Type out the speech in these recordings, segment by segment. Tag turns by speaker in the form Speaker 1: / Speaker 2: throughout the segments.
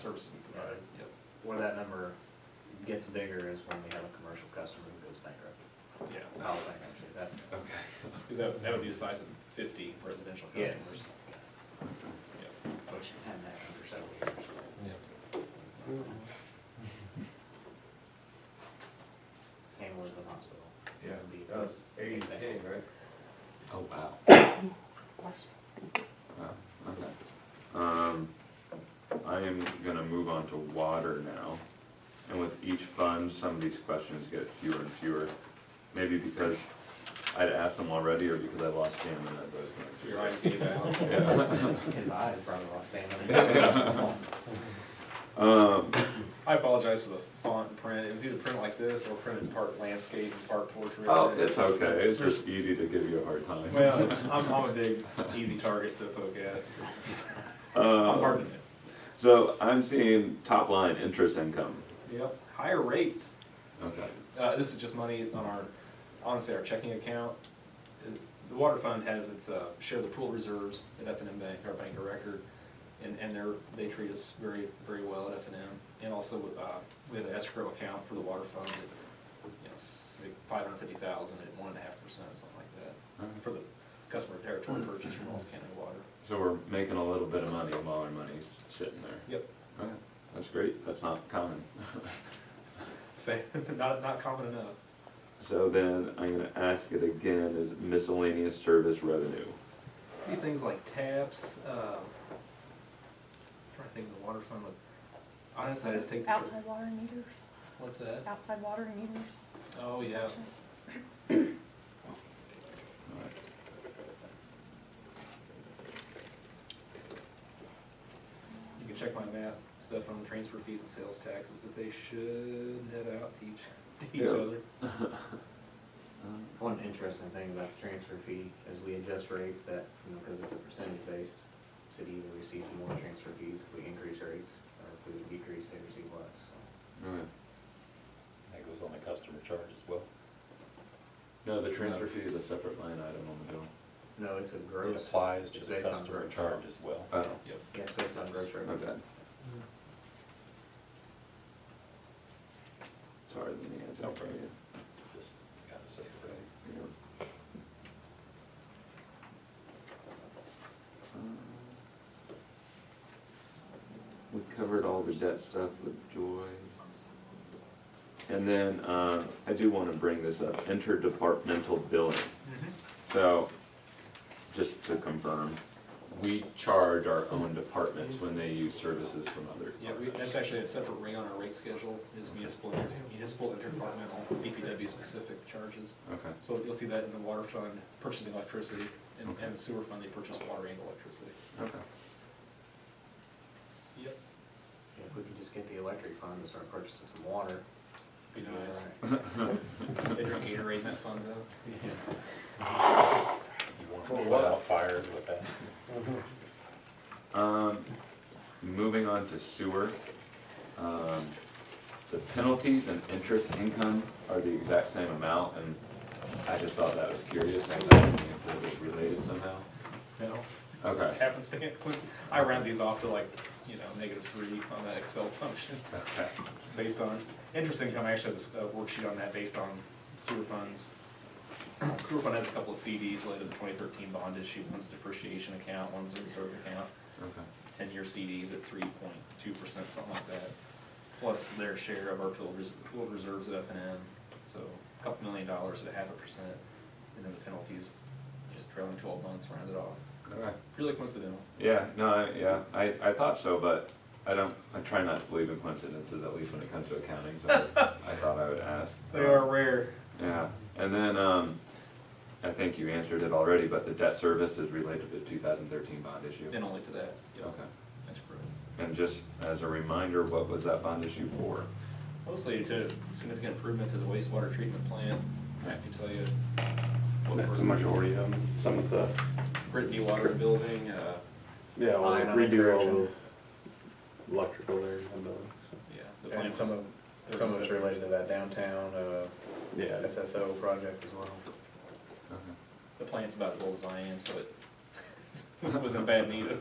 Speaker 1: services we provide, yep.
Speaker 2: Where that number gets bigger is when we have a commercial customer who goes bankrupt,
Speaker 1: Yeah.
Speaker 2: files bankruptcy, that's.
Speaker 3: Okay.
Speaker 1: Because that, that would be the size of fifty residential
Speaker 2: Yes.
Speaker 1: customers. Yep.
Speaker 2: Which had that for several years. Same with the hospital.
Speaker 4: Yeah,
Speaker 2: Be-
Speaker 4: that was eighty to
Speaker 2: Exactly.
Speaker 4: ten, right?
Speaker 3: Oh, wow. Wow, okay.
Speaker 5: Um, I am gonna move on to water now. And with each fund, some of these questions get fewer and fewer. Maybe because I'd asked them already or because I lost stamina as I was going
Speaker 1: So
Speaker 5: through.
Speaker 1: Your eyes gave out.
Speaker 2: His eyes probably lost stamina.
Speaker 5: Um,
Speaker 1: I apologize for the font and print. It was either printed like this or printed part landscape and part portrait.
Speaker 5: oh, it's okay, it's just easy to give you a hard time.
Speaker 1: Well, it's, I'm, I'm a big, easy target to poke at. I'm
Speaker 5: Uh,
Speaker 1: hard to miss.
Speaker 5: so I'm seeing top line interest income.
Speaker 1: Yep, higher rates.
Speaker 5: Okay,
Speaker 1: Uh, this is just money on our, honestly, our checking account. The water fund has its, uh, share of the pool reserves at F and M Bank, our bank of record, and, and they're, they treat us very, very well at F and M. And also, uh, we have an escrow account for the water fund at, you know, five hundred fifty thousand at one and a half percent, something like that,
Speaker 5: Alright.
Speaker 1: for the customer territory purchase from Ross County Water.
Speaker 5: so we're making a little bit of money while our money's sitting there.
Speaker 1: Yep,
Speaker 5: Okay, that's great, that's not common.
Speaker 1: say, not, not common enough.
Speaker 5: So then I'm gonna ask it again, is miscellaneous service revenue?
Speaker 1: Do things like taps, um, trying to think of the water fund, but honestly, I just take. the-
Speaker 6: Outside water meters,
Speaker 1: What's that?
Speaker 6: outside water meters.
Speaker 1: Oh, yeah.
Speaker 6: Just-
Speaker 5: Alright.
Speaker 1: You can check my math stuff on transfer fees and sales taxes, but they should net out to each, to each
Speaker 5: Yeah.
Speaker 1: other.
Speaker 5: Uh,
Speaker 2: One interesting thing about the transfer fee is we adjust rates that, you know, because it's a percentage based, city either receives more transfer fees if we increase rates, or if we decrease, they receive less, so.
Speaker 5: Alright.
Speaker 4: That goes on the customer charge as well.
Speaker 5: No, the transfer fee is a separate line item on the bill.
Speaker 2: No, it's a gross.
Speaker 4: It applies to
Speaker 2: it's
Speaker 4: the
Speaker 2: based on
Speaker 4: customer
Speaker 2: gross.
Speaker 4: charge as well.
Speaker 5: Oh,
Speaker 1: Yep.
Speaker 2: Yeah, it's based on gross
Speaker 5: my
Speaker 2: revenue.
Speaker 5: bad. Sorry, Lenny, I jumped right in.
Speaker 4: Just gotta say it right.
Speaker 5: Yeah. We covered all the debt stuff with Joy. And then, uh, I do wanna bring this up, interdepartmental billing. So, just to confirm, we charge our own departments when they use services from other
Speaker 1: Yeah, we, that's
Speaker 5: departments.
Speaker 1: actually a separate ring on our rate schedule, is municipal, municipal interdepartmental, BPW specific charges.
Speaker 5: Okay,
Speaker 1: So you'll see that in the water fund, purchasing electricity, and, and the sewer fund, they purchase water and electricity.
Speaker 5: okay.
Speaker 1: Yep.
Speaker 2: Yeah, If we could just get the electric fund to start purchasing some water.
Speaker 1: Be
Speaker 2: we'd
Speaker 1: nice.
Speaker 2: alright.
Speaker 1: They drink Gatorade in that fund though.
Speaker 4: You
Speaker 1: Well,
Speaker 4: wanna put
Speaker 1: what-
Speaker 4: out fires with that?
Speaker 5: Um, moving on to sewer. Um, the penalties and interest income are the exact same amount, and I just thought that was curious, and I was if it was related somehow.
Speaker 1: No.
Speaker 5: Okay,
Speaker 1: happenstance. I round these off to like, you know, negative three on that Excel function,
Speaker 5: okay,
Speaker 1: based on, interesting, I actually have a s- a worksheet on that based on sewer funds. Sewer fund has a couple of CDs related to the twenty thirteen bond issue, one's depreciation account, one's a reserve account,
Speaker 5: okay.
Speaker 1: ten-year CDs at three point two percent, something like that. Plus their share of our pool res- pool reserves at F and M, so a couple million dollars at half a percent, and then the penalties, just trailing twelve months rounded off,
Speaker 5: Okay.
Speaker 1: purely coincidental.
Speaker 5: Yeah, no, I, yeah, I, I thought so, but I don't, I try not to believe in coincidences, at least when it comes to accounting, so I thought I would ask.
Speaker 1: They are rare.
Speaker 5: Yeah, and then, um, I think you answered it already, but the debt service is related to the two thousand thirteen bond issue.
Speaker 1: And only to that, yeah,
Speaker 5: Okay.
Speaker 1: that's correct.
Speaker 5: And just as a reminder, what was that bond issue for?
Speaker 1: Mostly to significant improvements at the wastewater treatment plant, I have to tell you. what
Speaker 7: That's
Speaker 1: we're-
Speaker 7: the majority of them, some of the,
Speaker 1: Britt dewatering building, uh,
Speaker 7: yeah, well,
Speaker 2: Line on the
Speaker 7: redo all
Speaker 2: correction.
Speaker 7: the electrical there in the building.
Speaker 1: yeah. the
Speaker 8: And
Speaker 1: plant
Speaker 8: some
Speaker 1: was
Speaker 8: of, some of it's
Speaker 1: 37.
Speaker 8: related to that downtown, uh,
Speaker 7: Yeah,
Speaker 8: SSO project as well.
Speaker 1: The plant's about as old as I am, so it was in bad need of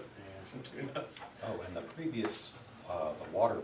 Speaker 2: Yeah.
Speaker 1: some tune-ups.
Speaker 4: Oh, and the previous, uh, the water